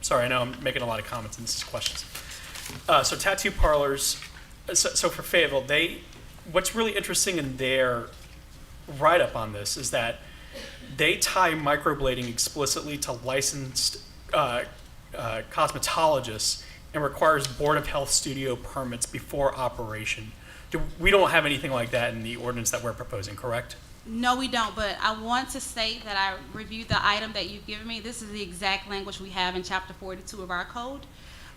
Sorry, I know I'm making a lot of comments and this is questions. Uh, so tattoo parlors, so, so for Fayetteville, they, what's really interesting in their write-up on this is that they tie microblading explicitly to licensed uh, uh, cosmetologists and requires Board of Health studio permits before operation. Do, we don't have anything like that in the ordinance that we're proposing, correct? No, we don't, but I want to state that I reviewed the item that you've given me. This is the exact language we have in chapter forty-two of our code.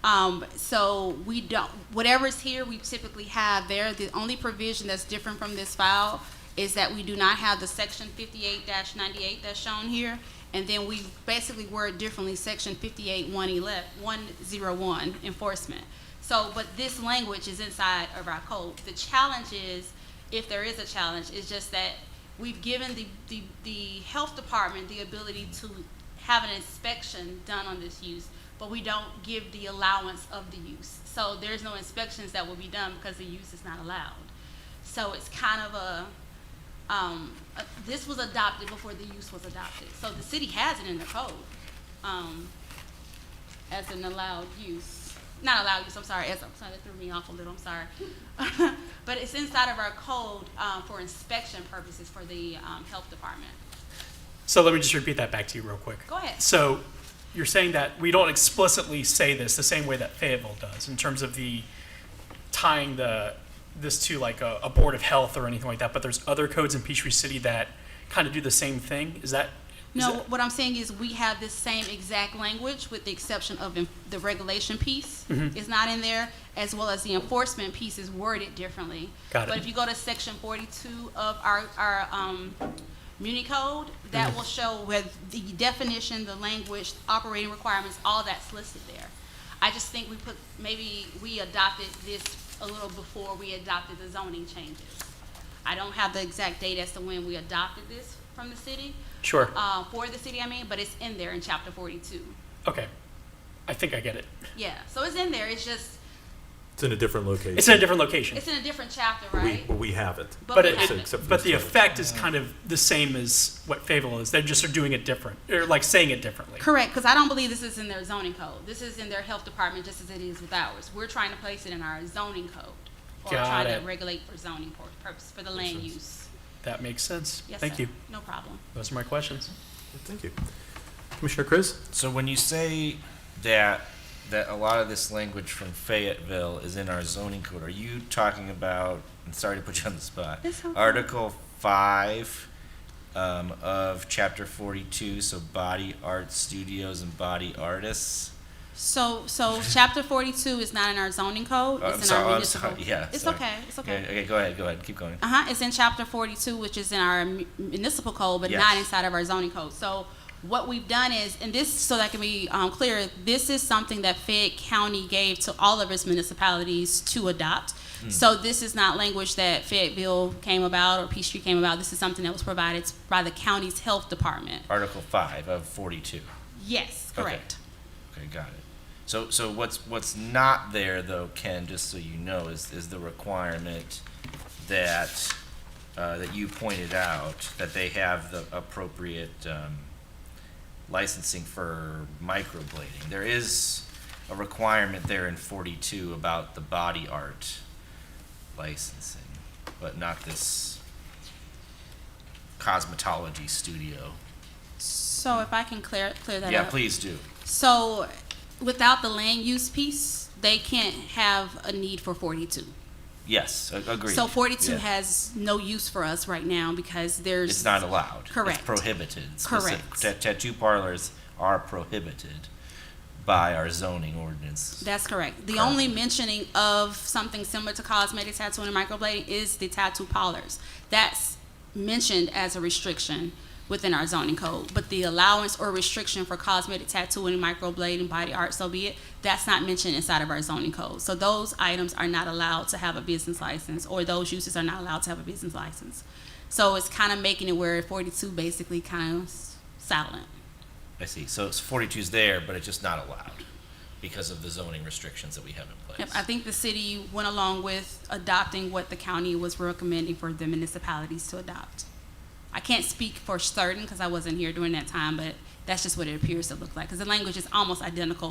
Um, so we don't, whatever's here, we typically have there. The only provision that's different from this file is that we do not have the section fifty-eight ninety-eight that's shown here. And then we basically word differently, section fifty-eight one eleven, one zero one enforcement. So, but this language is inside of our code. The challenge is, if there is a challenge, is just that we've given the, the, the health department the ability to have an inspection done on this use, but we don't give the allowance of the use. So there's no inspections that will be done because the use is not allowed. So it's kind of a, um, uh, this was adopted before the use was adopted. So the city has it in the code, um, as an allowed use, not allowed use, I'm sorry, as, I'm sorry, that threw me off a little, I'm sorry. But it's inside of our code, um, for inspection purposes for the, um, health department. So let me just repeat that back to you real quick. Go ahead. So you're saying that we don't explicitly say this the same way that Fayetteville does in terms of the tying the this to like a, a board of health or anything like that, but there's other codes in Peachtree City that kind of do the same thing. Is that is No, that- what I'm saying is we have this same exact language with the exception of in- the regulation piece Mm-hmm. is not in there, as well as the enforcement piece is worded differently. Got it. But if you go to section forty-two of our, our, um, Muni Code, that Mm-hmm. will show with the definition, the language, operating requirements, all that's listed there. I just think we put, maybe we adopted this a little before we adopted the zoning changes. I don't have the exact date as to when we adopted this from the city, Sure. uh, for the city, I mean, but it's in there in chapter forty-two. Okay. I think I get it. Yeah, so it's in there, it's just, It's in a different location. It's in a different location. it's in a different chapter, But we, right? but we have it. but we it, have it- Except for but the the state. effect is kind of the same as what Fayetteville is. They just are doing it different, or like saying it differently. Correct, because I don't believe this is in their zoning code. This is in their health department just as it is with ours. We're trying to place it in our zoning code. Or Got trying to it. regulate for zoning pur- purpose, for the land sense. use. That makes sense. Yes, Thank sir. you. No problem. Those are my questions. Thank you. Commissioner Chris? So when you say that that a lot of this language from Fayetteville is in our zoning code, are you talking about? And sorry to put you on the spot. It's okay. Article five um, of chapter forty-two. So body art studios and body artists. So, so chapter forty-two is not in our zoning code, Oh, I'm it's in sorry- our I'm municipal. sorry, yeah, It's sorry. okay, it's okay. Okay, go ahead. Go ahead. Keep going. Uh-huh, it's in chapter forty-two, which is in our mu- municipal code, but not Yes. inside of our zoning code. So what we've done is, and this, so that can be, um, clear, this is something that Fayette County gave to all of its municipalities to adopt. Hmm. So this is not language that Fayetteville came about or Peachtree came about. This is something that was provided by the county's health department. Article five of forty-two. Yes, Okay. correct. Okay, got it. So, so what's, what's not there though, Ken, just so you know, is, is the requirement that, uh, that you pointed out, that they have the appropriate, um, licensing for microblading. There is a requirement there in forty-two about the body art licensing, but not this cosmetology studio. So if I can clear, clear that up. Yeah, please do. So without the land use piece, they can't have a need for forty-two. Yes, a- agreed. So 42 Yeah. has no use for us right now because there's It's not allowed. Correct. It's prohibited. Specific- Correct. ta- Tattoo parlors are prohibited by our zoning ordinance. That's correct. The Correct. only mentioning of something similar to cosmetic tattooing and microblading is the tattoo parlors. That's mentioned as a restriction within our zoning code, but the allowance or restriction for cosmetic tattooing, microblading, body art, so be it, that's not mentioned inside of our zoning code. So those items are not allowed to have a business license, or those uses are not allowed to have a business license. So it's kind of making it where 42 basically kind of silent. I see. So it's 42's there, but it's just not allowed because of the zoning restrictions that we have in Yep, place. I think the city went along with adopting what the county was recommending for the municipalities to adopt. I can't speak for certain because I wasn't here during that time, but that's just what it appears to look like, because the language is almost identical